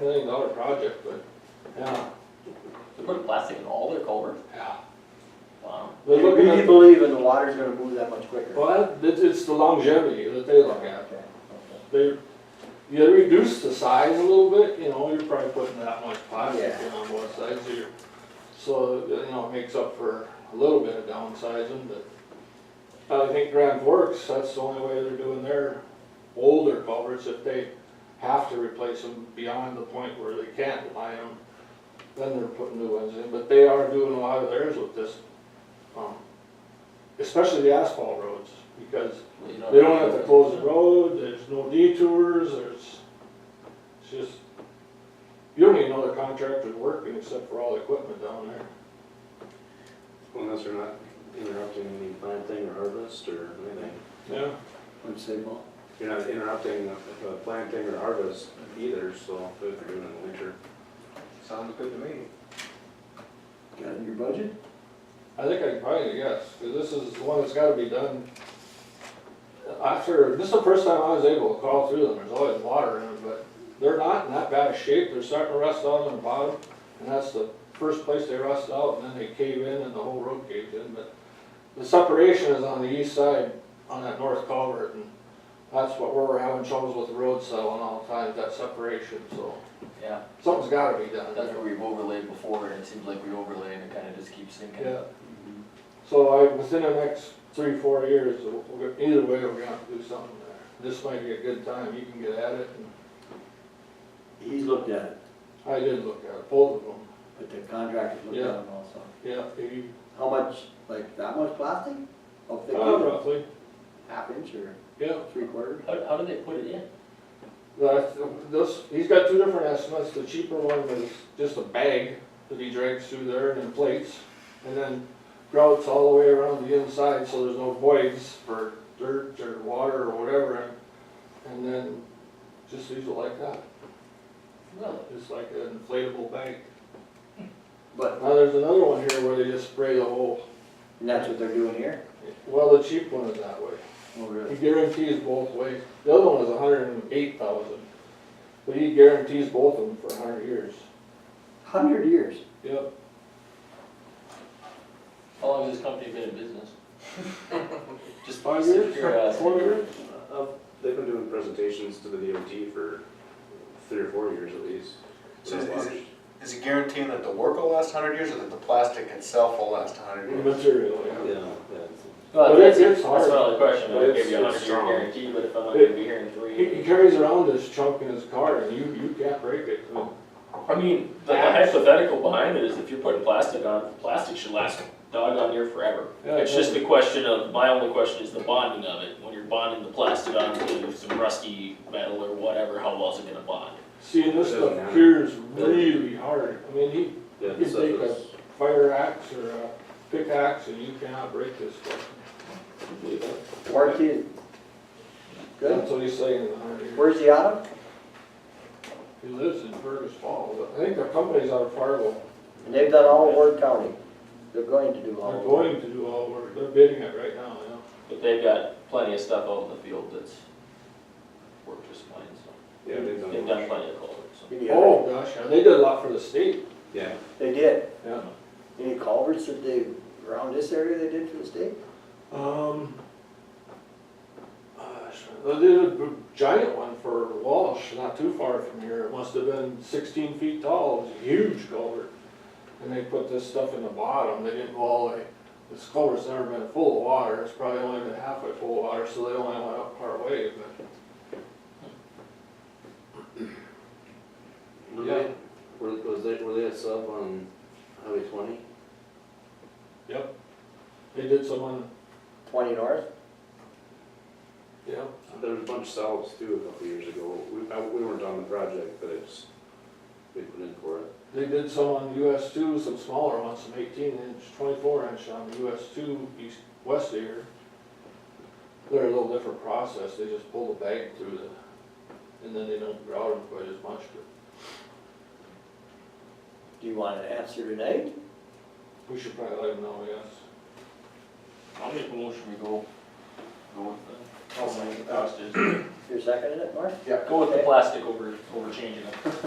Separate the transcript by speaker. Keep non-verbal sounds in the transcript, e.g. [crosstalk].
Speaker 1: million dollar project, but, yeah,
Speaker 2: They put plastic in all their culverts?
Speaker 1: yeah.
Speaker 2: Wow.
Speaker 1: They're
Speaker 3: Do
Speaker 1: looking
Speaker 3: you
Speaker 1: at,
Speaker 3: believe in the water's gonna move that much quicker?
Speaker 1: well, that, it's the longevity that they look at.
Speaker 3: Okay.
Speaker 1: They, you reduce the size a little bit, you know, you're probably putting that much plastic
Speaker 3: Yeah.
Speaker 1: in on both sides here. So, you know, it makes up for a little bit of downsizing, but I think Grand Forks, that's the only way they're doing their older culverts, if they have to replace them beyond the point where they can't line them, then they're putting new ones in, but they are doing a lot of theirs with this, um, especially the asphalt roads, because
Speaker 2: Well, you
Speaker 1: they don't have to close the road, there's no detours, there's, it's just, you don't even know the contractor's working except for all the equipment down there.
Speaker 4: Unless they're not interrupting any planting or harvest or anything.
Speaker 1: Yeah.
Speaker 3: What'd you say, Paul?
Speaker 4: You're not interrupting uh, uh, planting or harvest either, so if they're doing it in the winter.
Speaker 5: Sounds good to me.
Speaker 3: Got it in your budget?
Speaker 1: I think I can probably guess, because this is one that's gotta be done. After, this is the first time I was able to crawl through them, there's always water in them, but they're not in that bad a shape, they're starting to rust out on the bottom. And that's the first place they rust out, and then they cave in and the whole road caves in, but the separation is on the east side, on that north culvert, and that's what, where we're having troubles with the road settling all the time, that separation, so
Speaker 2: Yeah,
Speaker 1: something's gotta be done.
Speaker 2: that's where we've overlaid before and it seems like we overlay and it kinda just keeps sinking.
Speaker 1: Yeah.
Speaker 3: Mm-hmm.
Speaker 1: So I, within the next three, four years, we'll go- either way, we're gonna have to do something there. This might be a good time, you can get at it, and
Speaker 3: He's looked at it,
Speaker 1: I did look at it, both of them,
Speaker 3: but the contractor's looked at
Speaker 1: Yeah.
Speaker 3: it also.
Speaker 1: yeah, he,
Speaker 3: How much, like, that much plastic? How thick
Speaker 1: uh,
Speaker 3: is it?
Speaker 1: roughly,
Speaker 3: Half inch or
Speaker 1: yeah.
Speaker 3: three quarters?
Speaker 2: How, how do they put it in?
Speaker 1: That's, this, he's got two different estimates, the cheaper one is just a bag that he drags through there and then plates, and then grouts all the way around the inside, so there's no voids for dirt or water or whatever, and, and then just leaves it like that,
Speaker 2: Really?
Speaker 1: just like an inflatable bank.
Speaker 3: But,
Speaker 1: Now, there's another one here where they just spray the whole,
Speaker 3: and that's what they're doing here?
Speaker 1: well, the cheap one is that way.
Speaker 3: Oh,
Speaker 1: He
Speaker 3: really?
Speaker 1: guarantees both ways. The other one is a hundred and eight thousand, but he guarantees both of them for a hundred years.
Speaker 3: Hundred years?
Speaker 1: Yep.
Speaker 2: How long has this company been in business? Just
Speaker 1: Five
Speaker 2: out
Speaker 1: years?
Speaker 2: of curiosity.
Speaker 1: Four years?
Speaker 4: Uh, uh, They've been doing presentations to the DOT for three or four years at least.
Speaker 5: So is- is it- Is it guaranteeing that the work will last hundred years or that the plastic itself will last hundred years?
Speaker 1: Material,
Speaker 4: Yeah,
Speaker 1: yeah.
Speaker 4: yeah. it's-
Speaker 2: Well,
Speaker 1: But it's-
Speaker 2: that's,
Speaker 1: it's
Speaker 2: that's my
Speaker 1: hard.
Speaker 2: only question, I
Speaker 4: It's-
Speaker 2: give you a
Speaker 4: it's
Speaker 2: hundred year
Speaker 4: strong.
Speaker 2: guarantee, but if I'm not gonna be here in three
Speaker 1: He, he
Speaker 2: years.
Speaker 1: carries around this chunk in his car and you, you can't break it.
Speaker 2: I mean, the hypothetical behind it is if you're putting plastic on, plastic should last doggone near forever.
Speaker 1: Yeah,
Speaker 2: It's just
Speaker 1: yeah.
Speaker 2: the question of, my only question is the bonding of it, when you're bonding the plastic onto some rusty metal or whatever, how well is it gonna bond?
Speaker 1: Seeing this
Speaker 4: It doesn't
Speaker 1: stuff
Speaker 4: matter.
Speaker 1: cures really hard. I mean, he,
Speaker 4: Yeah,
Speaker 1: you
Speaker 4: so
Speaker 1: take
Speaker 4: it's-
Speaker 1: fire axe or a pickaxe and you cannot break this stuff.
Speaker 3: Warranty is good?
Speaker 1: That's what he's saying, a hundred years.
Speaker 3: Where's the auto?
Speaker 1: He lives in Fergus Falls. I think the company's out of Fargo.
Speaker 3: And they've done all of Ward County. They're going to do all
Speaker 1: They're
Speaker 3: of Ward.
Speaker 1: going to Oh, do all work. They're bidding it right now, yeah.
Speaker 2: But they've got plenty of stuff out in the field that's worked just fine, so,
Speaker 4: Yeah, they've
Speaker 2: they've
Speaker 4: done,
Speaker 2: done plenty of culverts, so.
Speaker 3: Any other-
Speaker 1: Oh, gosh, yeah, they did a lot for the state.
Speaker 4: yeah,
Speaker 3: They did.
Speaker 1: Yeah.
Speaker 3: Any culverts that they, around this area they did for the state?
Speaker 1: Um, uh, they did a b- giant one for Walsh, not too far from here. It must have been sixteen feet tall. It was a huge culvert. And they put this stuff in the bottom. They didn't go all the way. This culvert's never been full of water. It's probably only been halfway full of water, so they only went up part way, but.
Speaker 4: Were
Speaker 1: Yeah.
Speaker 4: they, were, was they, were they a sub on Highway twenty?
Speaker 1: Yep. They did some on,
Speaker 3: Twenty north?
Speaker 1: yeah.
Speaker 4: There was a bunch of subs too a couple years ago, we, I- we weren't on the project, but it's, we put in for it.
Speaker 1: They did some on US two, some smaller ones, some eighteen inch, twenty-four inch on US two east, west of here. They're a little different process, they just pull the bag through the, and then they don't grout them quite as much, but
Speaker 3: Do you want an answer tonight?
Speaker 1: we should probably let them know, yes.
Speaker 2: I'll make a motion we go, go with the,
Speaker 5: I'll second that.
Speaker 2: cost is-
Speaker 3: You're seconding it, Mark?
Speaker 5: Yeah.
Speaker 2: go with the plastic over, over changing it. [laughs]